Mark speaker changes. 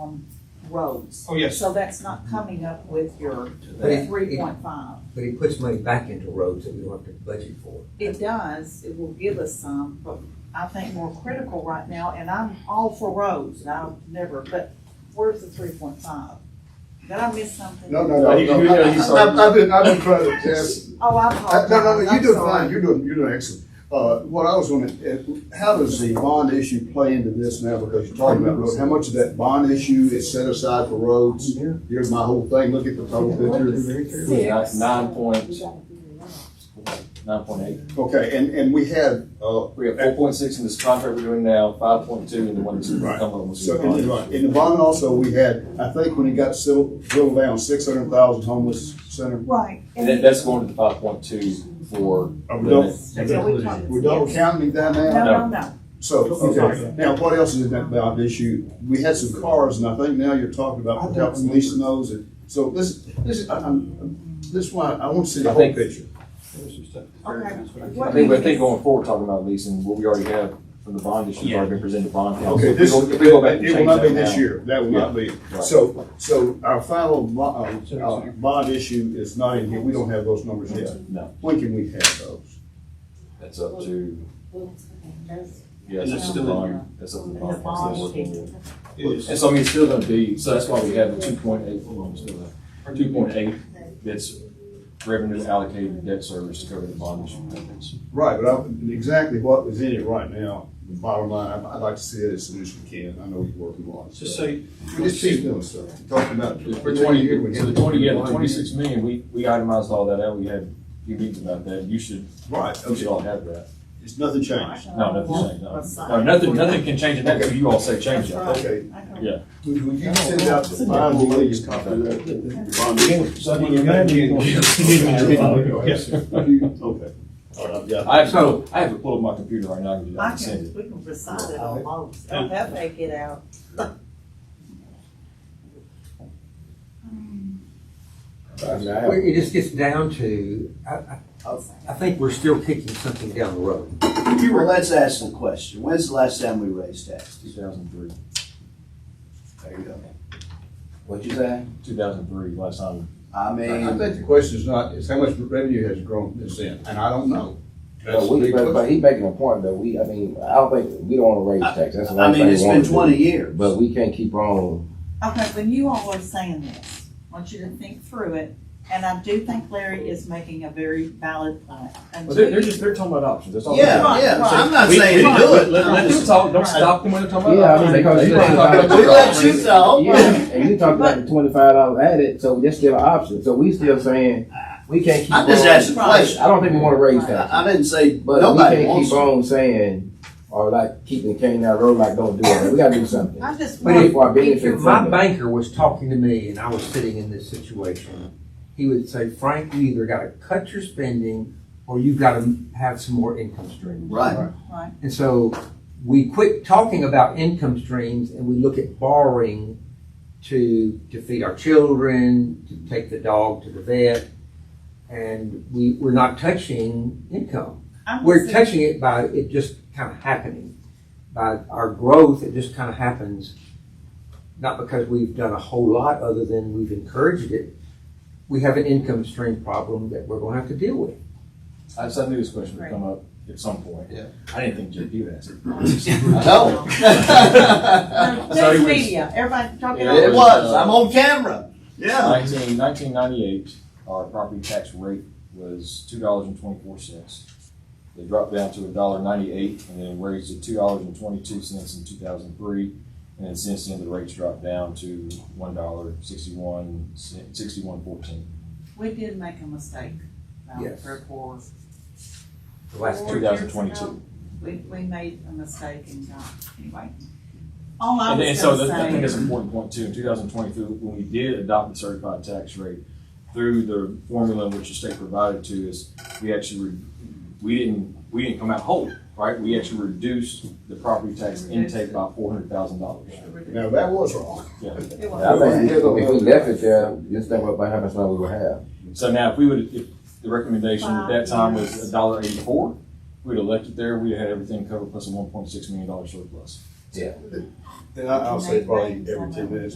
Speaker 1: on roads.
Speaker 2: Oh, yes.
Speaker 1: So that's not coming up with your
Speaker 3: But it-
Speaker 1: three point five.
Speaker 3: But he puts money back into roads that we don't have to budget for.
Speaker 1: It does, it will give us some, but I think more critical right now, and I'm all for roads, and I'll never, but where's the three point five? Did I miss something?
Speaker 4: No, no,
Speaker 5: No,
Speaker 4: no,
Speaker 5: you-
Speaker 4: no.
Speaker 5: you know,
Speaker 4: I-
Speaker 5: you
Speaker 4: I-
Speaker 5: saw-
Speaker 4: I've, I've been, I've been trying to ask,
Speaker 1: Oh, I
Speaker 4: I-
Speaker 1: apologize.
Speaker 4: Uh, no, no, no,
Speaker 1: I'm
Speaker 4: you're doing
Speaker 1: sorry.
Speaker 4: fine, you're doing, you're doing excellent. Uh, what I was gonna, uh, how does the bond issue play into this now, because you're talking about roads, how much of that bond issue is set aside for roads? Here's my whole thing, look at the total picture.
Speaker 5: Nine nine point, nine point eight.
Speaker 4: Okay, and, and we had, uh,
Speaker 5: We have four point six in this contract we're doing now, five point two in the one that's going to
Speaker 4: Right.
Speaker 5: come on. with
Speaker 4: So
Speaker 5: the
Speaker 4: in
Speaker 5: bond.
Speaker 4: the, in the bond also, we had, I think when it got settled, drilled down, six hundred thousand homeless center.
Speaker 1: Right.
Speaker 5: And that, that's going to the five point two for.
Speaker 4: Uh, We don't,
Speaker 1: Yeah, we talked-
Speaker 4: we don't count any down there?
Speaker 1: No, no, no,
Speaker 4: So,
Speaker 2: Okay.
Speaker 4: okay, now what else is in that bond issue? We had some cars and I think now you're talking about helping leasing those and, so this, this, I- I'm, this is why I want to see the
Speaker 5: I
Speaker 4: whole
Speaker 5: think-
Speaker 4: picture.
Speaker 1: okay.
Speaker 5: I
Speaker 1: What
Speaker 5: think,
Speaker 1: do
Speaker 5: I
Speaker 1: you
Speaker 5: think going forward, talking about leasing, what we already have from the bond issue,
Speaker 2: Yeah.
Speaker 5: already been presented to bond council.
Speaker 4: Okay,
Speaker 5: If we
Speaker 4: this,
Speaker 5: go-
Speaker 4: it
Speaker 5: if we go back and
Speaker 4: will
Speaker 5: change
Speaker 4: not be
Speaker 5: that
Speaker 4: this
Speaker 5: now-
Speaker 4: year, that will not be. So, so our final bo- uh, uh, bond issue is not in here, we don't have those numbers yet.
Speaker 5: No.
Speaker 4: When can we have those?
Speaker 5: That's up to, yes,
Speaker 2: And
Speaker 5: that's
Speaker 2: that's
Speaker 5: up to
Speaker 2: still
Speaker 5: the
Speaker 2: in
Speaker 5: bond, that's up to the
Speaker 1: And the
Speaker 5: bond council.
Speaker 1: bond
Speaker 5: working with.
Speaker 2: It is.
Speaker 5: And so I mean, it's still gonna be, so that's why we have the two point eight, two point eight, that's revenue allocated to debt service to cover the bond issue payments.
Speaker 4: Right, but I- exactly what is in it right now, the bottom line, I'd I'd like to see it as soon as we can, I know you're working on it.
Speaker 2: So say,
Speaker 4: We just keep doing stuff, talking about.
Speaker 5: For twenty, so the twenty, yeah, the twenty-six million, we, we itemized all that out, we had a few meetings about that, you should,
Speaker 4: Right,
Speaker 5: you
Speaker 4: okay,
Speaker 5: should all have that.
Speaker 4: it's nothing changed.
Speaker 5: No, nothing changed, no,
Speaker 1: Aside.
Speaker 5: no, nothing, nothing can change in that, until you all say change
Speaker 1: That's
Speaker 5: that.
Speaker 1: right.
Speaker 4: Okay,
Speaker 1: I can-
Speaker 5: Yeah.
Speaker 4: would would you send out the final lease copy of that?
Speaker 6: So you imagine.
Speaker 2: Yes.
Speaker 4: Would you- Okay. All right, I've got it.
Speaker 5: I have, so, I have it pulled up my computer right now, I can do that, I
Speaker 1: I
Speaker 5: can send
Speaker 1: can,
Speaker 5: it.
Speaker 1: we can recite it almost,
Speaker 5: Oh.
Speaker 1: I'll have to get out.
Speaker 3: Well, It just gets down to, I, I, I think we're still kicking something down the road.
Speaker 7: Well, let's ask the question. When's the last time we raised taxes?
Speaker 5: Two thousand three,
Speaker 7: There you go. What'd you say?
Speaker 5: two thousand three, last time,
Speaker 7: I
Speaker 4: I I
Speaker 7: mean,
Speaker 4: think the question is not, is how much revenue has grown since then, and I don't know. That's the
Speaker 8: But we,
Speaker 4: big
Speaker 8: but, but
Speaker 4: question.
Speaker 8: he making a point that we, I mean, I don't think, we don't wanna raise taxes, that's the
Speaker 7: I
Speaker 8: last thing
Speaker 7: mean,
Speaker 8: we
Speaker 7: it's
Speaker 8: wanna
Speaker 7: been
Speaker 8: do.
Speaker 7: twenty years.
Speaker 8: But we can't keep on,
Speaker 1: Okay, when you all are saying this, I want you to think through it, and I do think Larry is making a very valid point.
Speaker 5: well, they're, they're just, they're talking about options, that's all. they're doing.
Speaker 7: Yeah, yeah, I'm not
Speaker 5: We-
Speaker 7: saying
Speaker 5: we-
Speaker 7: do
Speaker 5: Let,
Speaker 7: it.
Speaker 5: let- let them talk, don't stop them when they're talking
Speaker 8: Yeah, I
Speaker 5: about
Speaker 8: mean,
Speaker 5: options.
Speaker 8: because
Speaker 5: They-
Speaker 8: you
Speaker 5: they
Speaker 8: talk
Speaker 5: talk
Speaker 8: about-
Speaker 5: about
Speaker 7: We
Speaker 5: their
Speaker 7: let
Speaker 5: options.
Speaker 7: you talk.
Speaker 8: yeah, and you talked about the twenty-five dollars added, so that's still an option, so we still saying, we can't keep on.
Speaker 7: I'm just asking a
Speaker 8: I
Speaker 7: question.
Speaker 8: don't think we wanna raise
Speaker 7: I, I
Speaker 8: taxes,
Speaker 7: didn't say
Speaker 8: but we
Speaker 7: nobody
Speaker 8: can't
Speaker 7: wants
Speaker 8: keep
Speaker 7: to.
Speaker 8: on saying, or like, keeping the cane down the road, like, don't do it, we gotta do something.
Speaker 1: I just
Speaker 8: But
Speaker 1: want,
Speaker 8: if our
Speaker 3: If
Speaker 8: benefits.
Speaker 3: my banker was talking to me and I was sitting in this situation, he would say, Frank, you either gotta cut your spending or you've gotta have some more income streams.
Speaker 7: Right.
Speaker 1: right,
Speaker 3: And so we quit talking about income streams and we look at borrowing to, to feed our children, to take the dog to the vet. And we, we're not touching income.
Speaker 1: I'm
Speaker 3: We're
Speaker 1: just,
Speaker 3: touching it by it just kind of happening. By our growth, it just kind of happens, not because we've done a whole lot other than we've encouraged it. We have an income stream problem that we're gonna have to deal with.
Speaker 5: I just, I knew this question would
Speaker 1: Right.
Speaker 5: come up at some point.
Speaker 7: Yeah.
Speaker 5: I didn't think JP would ask it.
Speaker 7: No.
Speaker 1: No,
Speaker 5: So
Speaker 1: news
Speaker 5: it was-
Speaker 1: media, everybody talking
Speaker 5: Yeah,
Speaker 1: about.
Speaker 7: It was. I'm on camera. Yeah.
Speaker 5: Nineteen, nineteen ninety-eight, our property tax rate was two dollars and twenty-four cents. They dropped down to a dollar ninety-eight and then raised it two dollars and twenty-two cents in two thousand three. And then since then, the rates dropped down to one dollar sixty-one, sixty-one fourteen.
Speaker 1: We did make a mistake about
Speaker 3: Yes.
Speaker 1: three or four.
Speaker 3: The last
Speaker 1: four
Speaker 3: two,
Speaker 5: Two
Speaker 1: years
Speaker 5: thousand twenty-two.
Speaker 1: ago. We, we made a mistake and got, anyway. All I
Speaker 5: And, and
Speaker 1: was
Speaker 5: so
Speaker 1: gonna
Speaker 5: that, I think
Speaker 1: say,
Speaker 5: that's an important point too. In 2023, when we did adopt the certified tax rate through the formula which the state provided to us, we actually re- we didn't we didn't come out whole, right? We actually reduced the property tax
Speaker 1: Reduced
Speaker 5: intake by four hundred thousand dollars.
Speaker 4: Now, that was wrong.
Speaker 1: it
Speaker 8: I
Speaker 1: was,
Speaker 8: think if we left it there, this thing would happen, so we would have.
Speaker 5: So now, if we would, if the recommendation at that time was a dollar eighty-four, we'd have left it there. We'd have had everything covered plus a one point six million dollar surplus.
Speaker 4: And I- I'll say probably every ten minutes,